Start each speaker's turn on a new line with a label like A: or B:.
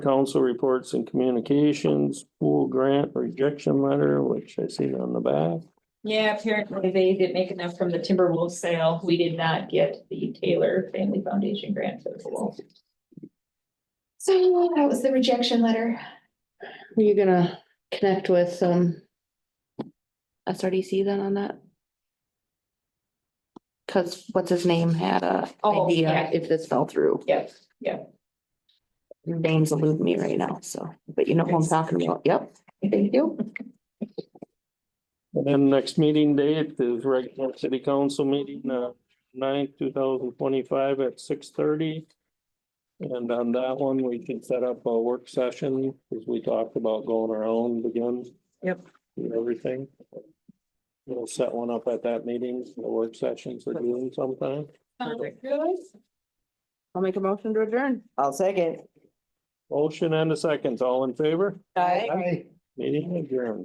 A: council reports and communications, pool grant rejection letter, which I see on the back.
B: Yeah, apparently they didn't make enough from the Timberwolves sale. We did not get the Taylor Family Foundation grant for the pool.
C: So that was the rejection letter.
D: Are you gonna connect with, um, SRDC then on that? Cause what's his name had a
B: Oh, yeah.
D: idea if this fell through.
B: Yep,
D: Names elude me right now, so, but you know who I'm talking about. Yep, thank you.
A: And then next meeting date is regular city council meeting, uh, ninth, two thousand twenty-five at six thirty. And on that one, we can set up a work session, because we talked about going our own again.
B: Yep.
A: And everything. We'll set one up at that meeting, the work sessions are doing sometime.
B: Sounds good.
E: I'll make a motion to adjourn.
F: I'll second.
A: Motion and a second, all in favor?
F: Aye.
A: Meeting adjourned.